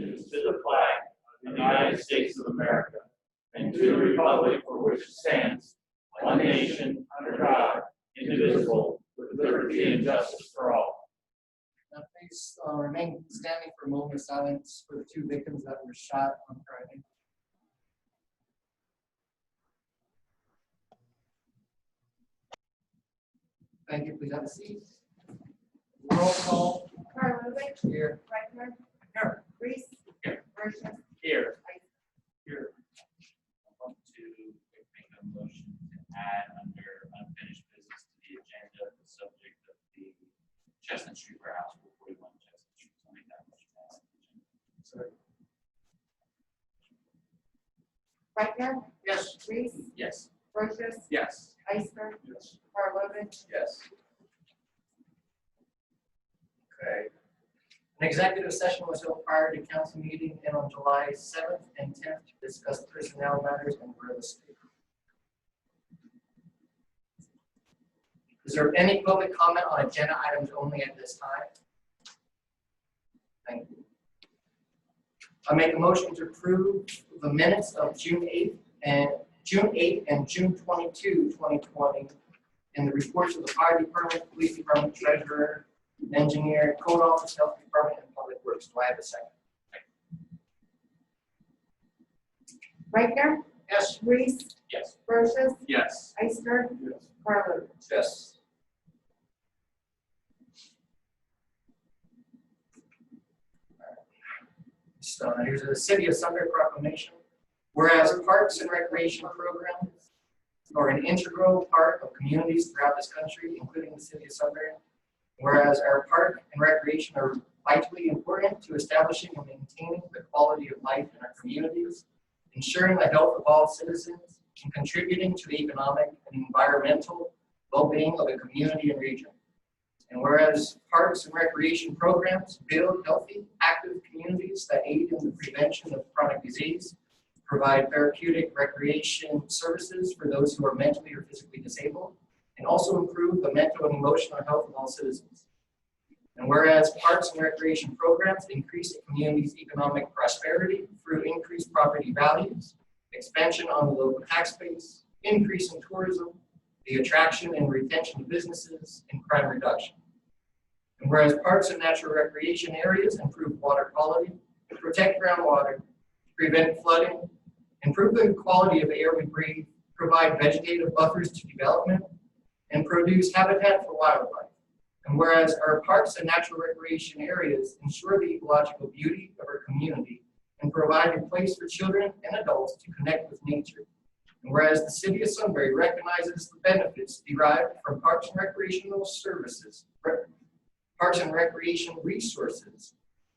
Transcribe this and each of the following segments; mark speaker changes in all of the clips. Speaker 1: the flag of the United States of America and to the republic for which it stands, one nation, under God, indivisible, with liberty and justice for all.
Speaker 2: Now please uh, remain standing for a moment of silence for the two victims that were shot on Friday. Thank you, please have a seat. Roll call
Speaker 3: Karlovic,
Speaker 2: here.
Speaker 3: Rechner.
Speaker 2: Here.
Speaker 3: Reese.
Speaker 1: Here.
Speaker 3: Brochus.
Speaker 1: Here. Here. I want to make a motion to add under unfinished business to the agenda, the subject of the Chestnut Street warehouse, four forty-one Chestnut Street. I'll make that motion. Sorry.
Speaker 3: Rechner.
Speaker 1: Yes.
Speaker 3: Reese.
Speaker 1: Yes.
Speaker 3: Brochus.
Speaker 1: Yes.
Speaker 3: Iceberg.
Speaker 1: Yes.
Speaker 3: Karlovic.
Speaker 1: Yes.
Speaker 2: Okay. An executive session was held prior to council meeting and on July seventh and tenth to discuss personnel matters and real estate. Is there any public comment on agenda items only at this time? Thank you. I make a motion to approve the minutes of June eighth and June eighth and June 22, 2020, and the reports of the fire department, police department, treasurer, engineer, code office, health department, and public works. Do I have a second?
Speaker 3: Rechner.
Speaker 2: Yes.
Speaker 3: Reese.
Speaker 1: Yes.
Speaker 3: Brochus.
Speaker 1: Yes.
Speaker 3: Iceberg.
Speaker 1: Yes.
Speaker 3: Karlovic.
Speaker 2: Yes. So here's the City of Sunbury proclamation. Whereas parks and recreation programs are an integral part of communities throughout this country, including the City of Sunbury. Whereas our park and recreation are vitally important to establishing and maintaining the quality of life in our communities, ensuring the health of all citizens, and contributing to the economic and environmental well-being of the community and region. And whereas parks and recreation programs build healthy, active communities that aid in the prevention of chronic disease, provide therapeutic recreation services for those who are mentally or physically disabled, and also improve the mental and emotional health of all citizens. And whereas parks and recreation programs increase the community's economic prosperity through increased property values, expansion on the local tax base, increase in tourism, the attraction and retention of businesses, and crime reduction. And whereas parks and natural recreation areas improve water quality, protect groundwater, prevent flooding, improve the quality of the air we breathe, provide vegetative buffers to development, and produce habitat for wildlife. And whereas our parks and natural recreation areas ensure the ecological beauty of our community and provide a place for children and adults to connect with nature. And whereas the city of Sunbury recognizes the benefits derived from parks and recreational services, re- parks and recreation resources.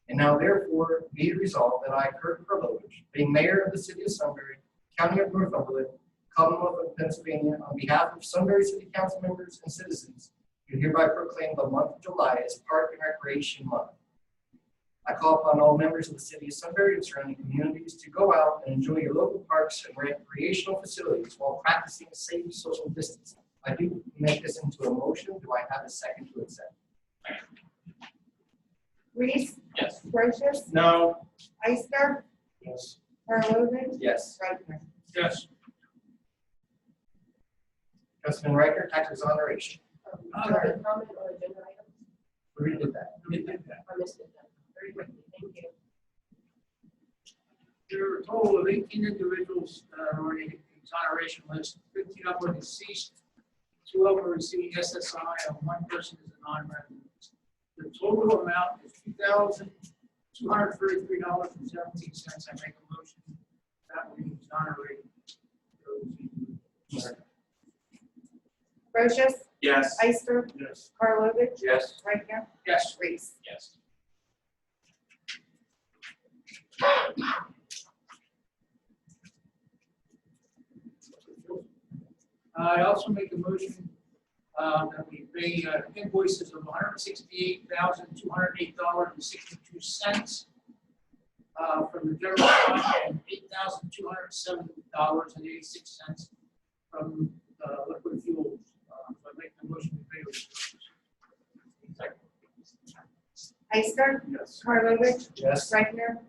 Speaker 2: And now therefore be it resolved that I, Kurt Karlovic, being mayor of the city of Sunbury, county of Northumberland, Commonwealth of Pennsylvania, on behalf of Sunbury City Council members and citizens, do hereby proclaim the month of July as Park and Recreation Month. I call upon all members of the city of Sunbury and surrounding communities to go out and enjoy your local parks and recreational facilities while practicing safe social distancing. I do make this into a motion. Do I have a second to accept?
Speaker 3: Reese.
Speaker 1: Yes.
Speaker 3: Brochus.
Speaker 1: No.
Speaker 3: Iceberg.
Speaker 1: Yes.
Speaker 3: Karlovic.
Speaker 2: Yes.
Speaker 3: Rechner.
Speaker 1: Yes.
Speaker 2: Councilman Riker, tax exoneration.
Speaker 4: Public comment on agenda items,
Speaker 2: We already did that.
Speaker 4: I missed it, then. very quickly, thank you.
Speaker 5: There are a total of eighteen individuals that are on the exoneration list, fifteen of them are deceased, two of them are receiving SSI, and one person is a non-resident. The total amount is two thousand two hundred thirty-three dollars and seventeen cents. I make a motion that we exonerate those individuals.
Speaker 3: Brochus.
Speaker 1: Yes.
Speaker 3: Iceberg.
Speaker 1: Yes.
Speaker 3: Karlovic.
Speaker 1: Yes.
Speaker 3: Rechner.
Speaker 5: Yes.
Speaker 3: Reese.
Speaker 1: Yes.
Speaker 5: I also make a motion uh, that we pay uh, invoices of one hundred sixty-eight thousand, two hundred eight dollars and sixty-two cents uh, from the general fund and eight thousand, two hundred seven dollars and eighty-six cents from uh, liquid fuels. Uh, So I make the motion to pay those.
Speaker 3: Iceberg.
Speaker 1: Yes.
Speaker 3: Karlovic.
Speaker 2: Yes.
Speaker 3: Rechner.